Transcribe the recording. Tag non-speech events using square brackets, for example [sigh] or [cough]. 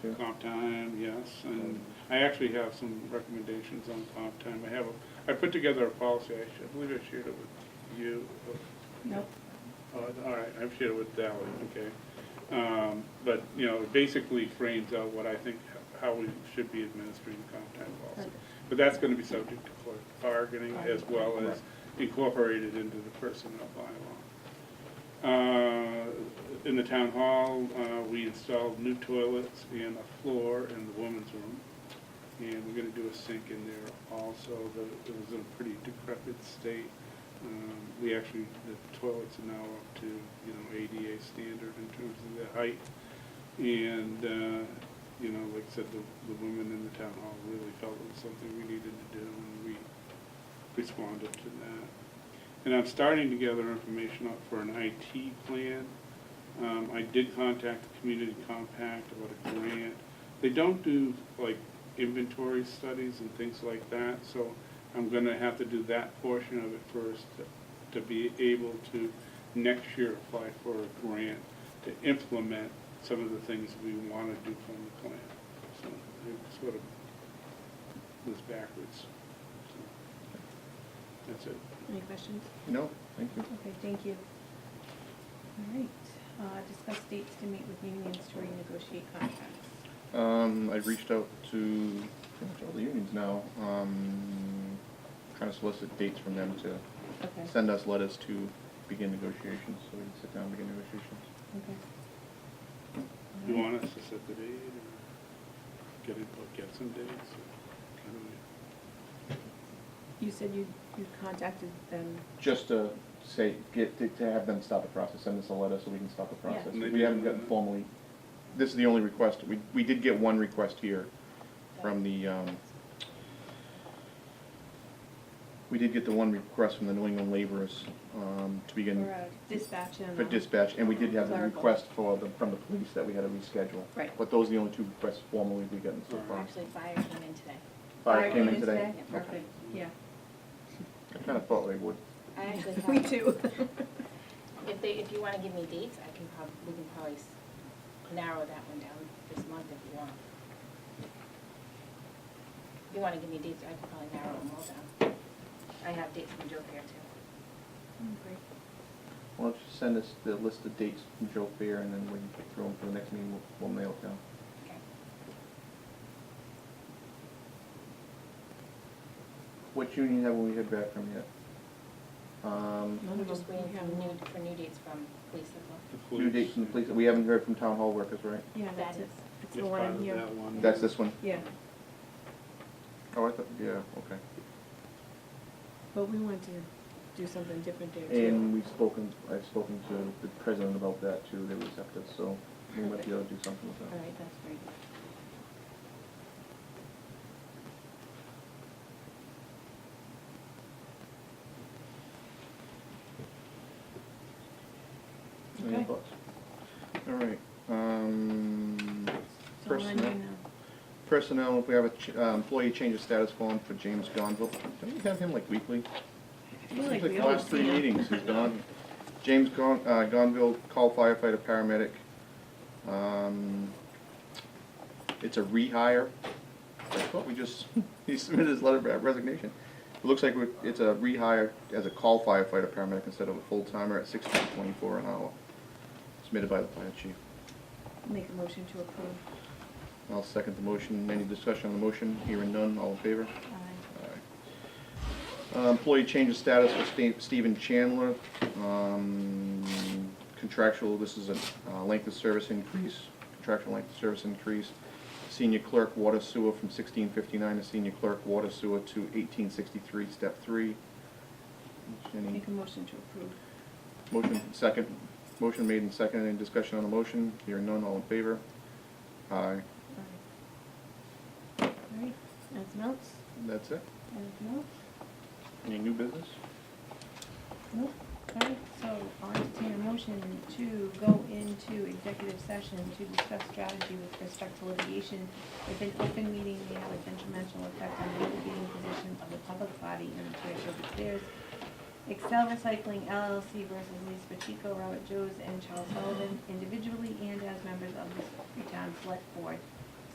Comp time, yes, and I actually have some recommendations on comp time. I have, a- I put together a policy, I should, I believe I shared it with you. Nope. Oh, All right, I've shared it with Sally, okay. Um, But, you know, it basically frames out what I think, how we should be administering the comp time policy. But that's gonna be subject to collective bargaining as well as incorporated into the personnel bylaw. Uh, In the town hall, uh, we installed new toilets and a floor in the women's room. And we're gonna do a sink in there also, but it was in a pretty decrepit state. Um, We actually, the toilets are now up to, you know, ADA standard in terms of the height. And, uh, you know, like I said, the, the women in the town hall really felt it was something we needed to do, and we responded to that. And I'm starting to gather information up for an IT plan. Um, I did contact the Community Compact about a grant. They don't do like inventory studies and things like that, so I'm gonna have to do that portion of it first to- to be able to next year apply for a grant to implement some of the things we wanna do from the plan. So it sort of was backwards. So That's it. Any questions? No, thank you. Okay, thank you. All right, uh, discuss dates to meet with unions to renegotiate contracts. Um, I reached out to pretty much all the unions now, um, trying to solicit dates from them to Okay, send us letters to begin negotiations, so we can sit down and begin negotiations. okay. You want us to set the date or get it, or get some dates? or how do we- You said you, you contacted them. Just to say, get, to- to have them stop the process, send us a letter so we can stop the Yeah. process. And they We do haven't that. gotten formally, this is the only request, we, we did get one request here from the, um, we did get the one request from the New England laborers, um, to begin For uh, dispatch and. for uh, dispatch, and we did have the clerical. request for the, from the police that we had to reschedule. Right. But those are the only two requests formally we've gotten so far. Actually, fire came in today. Fire came in today. today? Okay. Perfect, yeah. I kinda thought they would. [laughs] I actually have. Me too. [laughs] Oh, If they, if you wanna give me dates, I can prob, we can probably s- narrow that one down this month if you want. If you wanna give me dates, I can probably narrow them all down. I have dates from Joe Fair too. Mm, great. Why don't you send us the list of dates from Joe Fair, and then when you throw them for the next meeting, we'll, we'll nail it down. Okay. What union have we heard back from yet? Um, None We're of just them. waiting We for have new, one. for new dates from police as well. the due dates from the police, we haven't heard from town hall workers, right? Yeah, That that's it. is- It's It's the part one in of here. that one. That's this one? Yeah, Oh, I thought, yeah, okay. but we want to do something different there too. And we've spoken, I've spoken to the president about that too, they were receptive, so we might be able to do something with All that. right, that's great. Any Okay. thoughts? All right, um, So when personnel, personnel, if we have a ch- uh, employee change of status form for James Gonville, don't we have him like I weekly? feel like Seems we the always last three do. meetings, he's gone. James Gon, uh, Gonville, call firefighter, paramedic. Um, it's a rehire. I thought we just, [laughs] he submitted his letter of resignation. It looks like we're- it's a rehire as a call firefighter, paramedic instead of a full-timer at sixteen twenty-four an hour. Submitted by the fire chief. Make a motion to approve. I'll second the motion. Any discussion on the motion? Hearing none, all in favor? Aye. Uh, Employee change of status for Ste- Stephen Chandler. Um, Contractual, this is a uh, length of service increase, contractual length of service increase. Senior clerk water sewer from sixteen fifty-nine to senior clerk water sewer to eighteen sixty-three, step three. Any Make a motion to approve. motion, second, motion made and seconded. Any discussion on the motion? Hearing none, all in favor? Aye. All right, anything else? That's it? Anything else? Any new business? Nope. All right, so I'll entertain a motion to go into executive session to discuss strategy with respect to litigation if an open meeting may have a detrimental effect on the litigating position of the public body and appears to declares Excel Recycling LLC versus Lisa Pacheco, Robert Joes, and Charles Sullivan individually and as members of the town select board.